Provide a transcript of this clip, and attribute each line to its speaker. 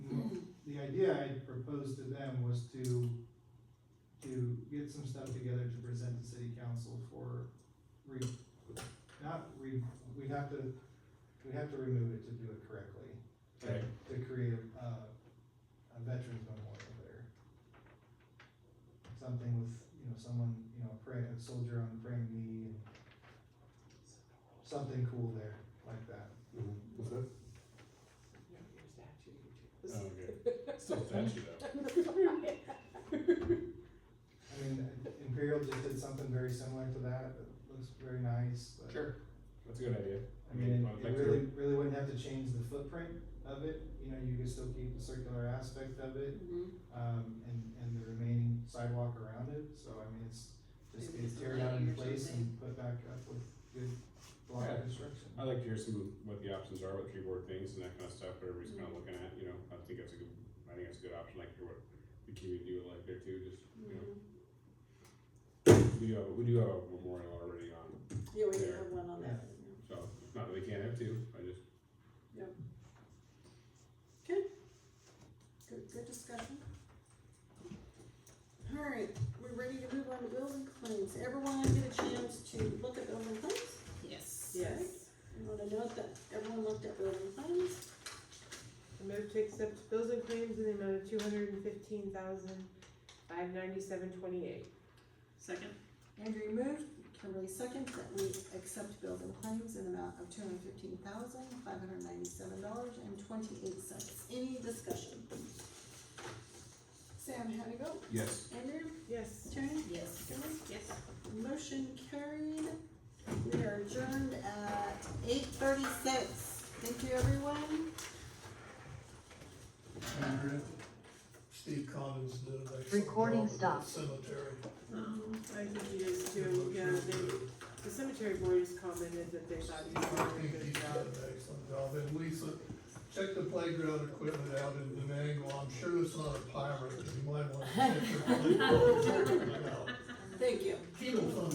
Speaker 1: proposed to them was to, to get some stuff together to present to city council for re, not re, we'd have to, we'd have to remove it to do it correctly.
Speaker 2: Okay.
Speaker 1: To create a, a veterans memorial there. Something with, you know, someone, you know, praying, a soldier on a praying knee and something cool there, like that.
Speaker 2: Mm-hmm. What's that? Oh, okay. Still a statue though.
Speaker 1: I mean, Imperial just did something very similar to that, it looks very nice, but.
Speaker 2: Sure. That's a good idea.
Speaker 1: I mean,
Speaker 2: I would
Speaker 1: it
Speaker 2: like to-
Speaker 1: really, really wouldn't have to change the footprint of it, you know, you could still keep the circular aspect of it,
Speaker 3: Mm-hmm.
Speaker 1: um, and, and the remaining sidewalk around it, so I mean, it's just
Speaker 3: Maybe
Speaker 1: get
Speaker 3: it's a
Speaker 1: tear down
Speaker 3: levee
Speaker 1: in
Speaker 3: or
Speaker 1: place
Speaker 3: something.
Speaker 1: and put back up with good block
Speaker 2: Yeah.
Speaker 1: construction.
Speaker 2: I'd like to hear some, what the options are with keyboard things and that kind of stuff, what everybody's kind of looking at, you know, I think that's a good, I think that's a good option, like hear what the community would like there too, just, you know. We do have, we do have a memorial already on,
Speaker 3: Yeah, we
Speaker 2: There.
Speaker 3: have one on that.
Speaker 2: so it's not that we can't have two, I just,
Speaker 3: Good, good discussion. Alright, we're ready to move on to building claims. Everyone get a chance to look at building claims?
Speaker 4: Yes.
Speaker 3: Yes. You wanna note that everyone looked at building claims?
Speaker 5: I move to accept bills and claims in the amount of two hundred and fifteen thousand, five ninety-seven twenty-eight.
Speaker 4: Second?
Speaker 3: Andrew moved, Kimberly seconds, that we accept bills and claims in the amount of two hundred fifteen thousand, five hundred ninety-seven dollars and twenty-eight cents. Any discussion? Sam, how do you go?
Speaker 2: yes,
Speaker 3: Andrew,
Speaker 5: Yes.
Speaker 3: Tony,
Speaker 4: Yes.
Speaker 3: Kimberly?
Speaker 4: Yes.
Speaker 3: Motion carried. We are adjourned at eight thirty-six. Thank you, everyone.
Speaker 6: Andrea, Steve Collins did an excellent
Speaker 7: Recording
Speaker 6: job with that
Speaker 7: stopped.
Speaker 6: cemetery.
Speaker 5: Um, I think he is too,
Speaker 6: I'm
Speaker 5: yeah,
Speaker 6: sure
Speaker 5: they,
Speaker 6: that-
Speaker 5: the cemetery board has commented that they thought he
Speaker 6: I
Speaker 5: was doing
Speaker 6: think
Speaker 5: a
Speaker 6: he
Speaker 5: good
Speaker 6: did
Speaker 5: job.
Speaker 6: an excellent job, and Lisa, check the playground equipment out in Venango, I'm sure it's not a pirate, but you might wanna check the playground equipment out.
Speaker 3: Thank you.
Speaker 6: Penal fund